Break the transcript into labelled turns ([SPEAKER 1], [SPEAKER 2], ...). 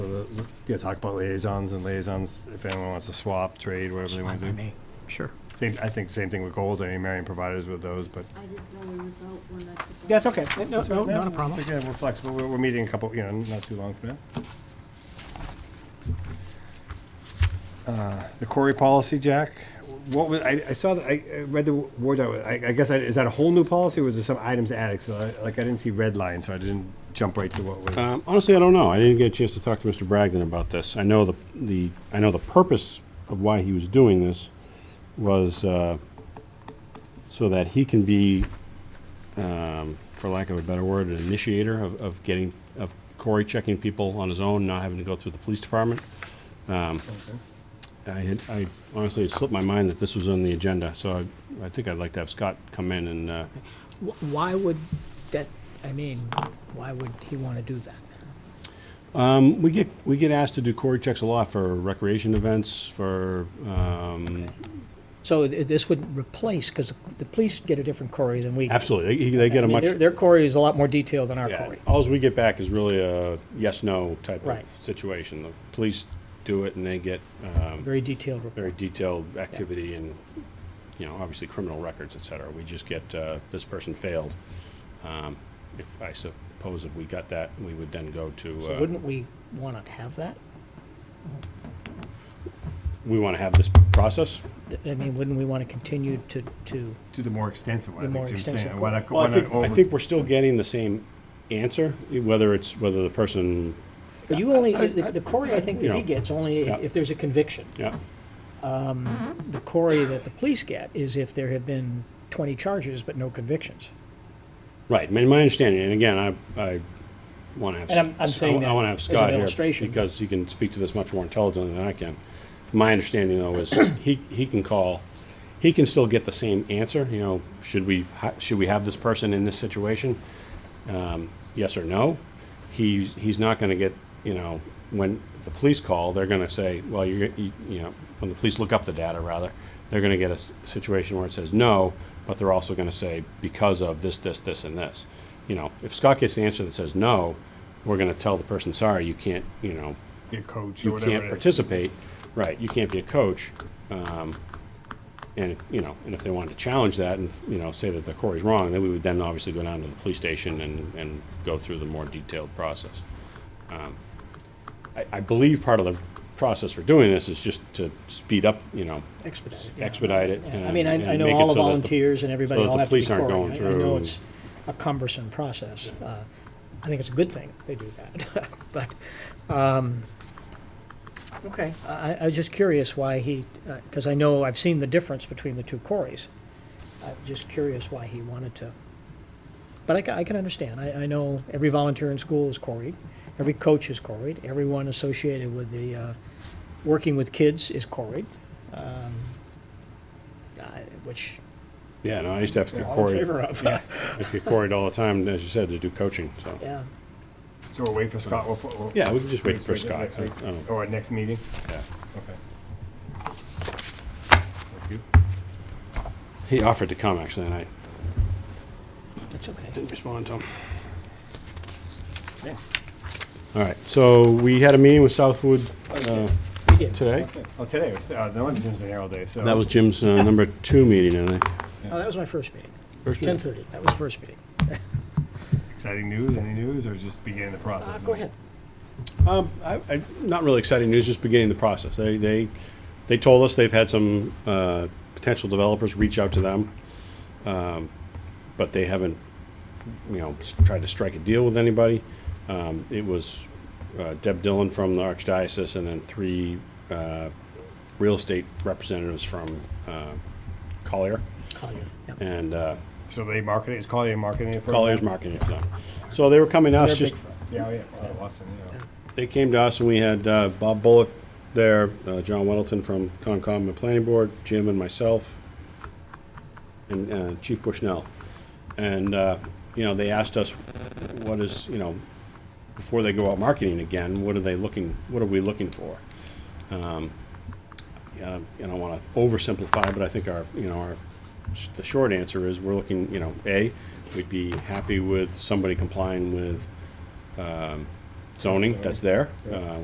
[SPEAKER 1] yeah, talk about liaisons and liaisons, if anyone wants to swap, trade, whatever they
[SPEAKER 2] Fine
[SPEAKER 1] want
[SPEAKER 2] by
[SPEAKER 1] to do.
[SPEAKER 2] me. Sure.
[SPEAKER 1] Same, I think same thing with goals, I mean, Marion provided us with those, but,
[SPEAKER 3] I didn't know he was out when I. took
[SPEAKER 1] yeah, it's
[SPEAKER 3] off.
[SPEAKER 1] okay.
[SPEAKER 2] No, no, not a problem.
[SPEAKER 1] Again, we're flexible, we're, we're meeting a couple, you know, not too long from now. Uh, The Corey policy, Jack, what was, I, I saw, that- I, I read the word, doc- I, I guess, I- is that a whole new policy, or was there some items added? So, I- like, I didn't see red line, so I didn't jump right to what was.
[SPEAKER 2] Uh,
[SPEAKER 4] Um, Honestly, I don't know. I didn't get a chance to talk to Mr. Bragdon about this. I know the, the, I know the purpose of why he was doing this was uh, so that he can be, um, for lack of a better word, an initiator of, of getting, of Cory checking people on his own, not having to go through the police department. Um, I had, I honestly, it slipped my mind that this was on the agenda, so I, I think I'd like to have Scott come in and, uh,
[SPEAKER 2] Wh- Why would that, I mean, why would he want to do that?
[SPEAKER 4] Um, we get, we get asked to do Cory checks a lot for recreation events, for, um,
[SPEAKER 2] So th- this would replace, because the police get a different query than we. get.
[SPEAKER 4] absolutely, they, they get
[SPEAKER 2] I
[SPEAKER 4] a
[SPEAKER 2] mean,
[SPEAKER 4] much.
[SPEAKER 2] Their, their query is a lot more detailed than our
[SPEAKER 4] Yeah,
[SPEAKER 2] query.
[SPEAKER 4] alls we get back is really a yes-no type of
[SPEAKER 2] Right.
[SPEAKER 4] situation. The police do it and they get, um,
[SPEAKER 2] Very detailed report.
[SPEAKER 4] very detailed activity and, you know, obviously criminal records, et cetera. We just get, uh, this person failed. Um, if, I suppose if we got that, we would then go to,
[SPEAKER 2] So
[SPEAKER 4] uh,
[SPEAKER 2] wouldn't we want to have that?
[SPEAKER 4] we want to have this process?
[SPEAKER 2] Th- I mean, wouldn't we want to continue to, to,
[SPEAKER 1] To the more extensive one.
[SPEAKER 2] The
[SPEAKER 1] I think
[SPEAKER 2] more
[SPEAKER 1] Jim's saying.
[SPEAKER 2] extensive
[SPEAKER 1] Why not go-
[SPEAKER 4] Well, I
[SPEAKER 1] why
[SPEAKER 4] think,
[SPEAKER 1] not over-
[SPEAKER 4] I think we're still getting the same answer, whether it's, whether the person,
[SPEAKER 2] but you only, the the query I think that
[SPEAKER 4] you
[SPEAKER 2] he
[SPEAKER 4] know,
[SPEAKER 2] gets only
[SPEAKER 4] yeah.
[SPEAKER 2] if if there's a conviction.
[SPEAKER 4] yeah,
[SPEAKER 2] The query that the police get is if there have been 20 charges but no convictions.
[SPEAKER 4] right, I mean, my understanding, and again, I, I want to have.
[SPEAKER 2] And I'm- I'm saying
[SPEAKER 4] I want
[SPEAKER 2] that
[SPEAKER 4] to have
[SPEAKER 2] as an
[SPEAKER 4] Scott here,
[SPEAKER 2] illustration.
[SPEAKER 4] because he can speak to this much more intelligently than I can. My understanding, though, is he, he can call, he can still get the same answer, you know, should we, hi- should we have this person in this situation? um, yes or no. He, he's not going to get, you know, when the police call, they're going to say, well, you're, you, you know, when the police look up the data, rather, they're going to get a s- situation where it says no, but they're also going to say because of this, this, this, and this. You know, if Scott gets the answer that says no, we're going to tell the person, sorry, you can't, you know,
[SPEAKER 1] Be a coach or
[SPEAKER 4] you
[SPEAKER 1] whatever
[SPEAKER 4] can't
[SPEAKER 1] it is.
[SPEAKER 4] participate, right, you can't be a coach. um, And, you know, and if they wanted to challenge that and, you know, say that the Corey's wrong, then we would then obviously go down to the police station and, and go through the more detailed process. Um, I, I believe part of the process for doing this is just to speed up, you know,
[SPEAKER 2] Expedite it. yeah.
[SPEAKER 4] expedite it.
[SPEAKER 2] Yeah, I
[SPEAKER 4] and-
[SPEAKER 2] mean,
[SPEAKER 4] and
[SPEAKER 2] I, I know
[SPEAKER 4] make it
[SPEAKER 2] all the
[SPEAKER 4] so that
[SPEAKER 2] volunteers and everybody
[SPEAKER 4] so that
[SPEAKER 2] all
[SPEAKER 4] the
[SPEAKER 2] have to be
[SPEAKER 4] police aren't
[SPEAKER 2] quarried.
[SPEAKER 4] going
[SPEAKER 2] I- I know
[SPEAKER 4] through-
[SPEAKER 2] it's a cumbersome process. Uh, I think it's a good thing they do that, but, um, okay, I, I- I was just curious why he, because I know I've seen the difference between the two quarries. I'm just curious why he wanted to, but I, ca- I can understand. I, I know every volunteer in school is quarried, every coach is quarried, everyone associated with the, uh, working with kids is quarried. Um, I- which
[SPEAKER 4] Yeah, no, I used to have to
[SPEAKER 2] we're
[SPEAKER 4] get
[SPEAKER 2] all in
[SPEAKER 4] Corey,
[SPEAKER 2] favor of. Yeah.
[SPEAKER 4] I used to get Corey all the time, as you said, to do coaching, so.
[SPEAKER 1] So we'll wait for Scott, we'll, put- we'll.
[SPEAKER 4] Yeah, we can just wait for
[SPEAKER 1] till
[SPEAKER 4] Scott.
[SPEAKER 1] next
[SPEAKER 4] I-
[SPEAKER 1] week.
[SPEAKER 4] I don't-
[SPEAKER 1] Or at next meeting,
[SPEAKER 4] yeah.
[SPEAKER 1] okay. Thank you.
[SPEAKER 4] He offered to come, actually, and I
[SPEAKER 2] That's okay.
[SPEAKER 4] didn't respond to him.
[SPEAKER 1] Yeah.
[SPEAKER 4] All right, so we had a meeting with Southwood uh,
[SPEAKER 2] We did.
[SPEAKER 4] today.
[SPEAKER 1] Oh, today was, uh, no one, Jim's been here all day, so.
[SPEAKER 4] That was Jim's uh, number two meeting, I think.
[SPEAKER 2] Oh, that was my first meeting.
[SPEAKER 4] First
[SPEAKER 2] Ten
[SPEAKER 4] meeting.
[SPEAKER 2] thirty, that was first meeting.
[SPEAKER 1] Exciting news, any news, or just beginning the
[SPEAKER 2] Uh,
[SPEAKER 1] process?
[SPEAKER 2] go ahead.
[SPEAKER 4] Um, I, I, not really exciting news, just beginning the process. They, they, they told us they've had some uh, potential developers reach out to them, um, but they haven't, you know, s- tried to strike a deal with anybody. Um, it was uh, Deb Dillon from the Archdiocese and then three uh, real estate representatives from uh, Collier.
[SPEAKER 2] Collier, yeah.
[SPEAKER 4] And uh,
[SPEAKER 1] So they market it, is Collier marketing it for? you?
[SPEAKER 4] Collier's marketing it for them. So they were coming to us
[SPEAKER 2] They're
[SPEAKER 4] just
[SPEAKER 2] big
[SPEAKER 1] Yeah, oh, yeah, oh, Watson, yeah.
[SPEAKER 4] they came to us and we had uh, Bob Bullock there, uh, John Weddleton from Concom and Planning Board, Jim and myself, and uh, Chief Bushnell. And, uh, you know, they asked us, what is, you know, before they go out marketing again, what are they looking, what are we looking for? Um, uh, you know, I want to oversimplify, but I think our, you know, our, sh- the short answer is we're looking, you know, A, we'd be happy with somebody complying with um, zoning that's there. Uh,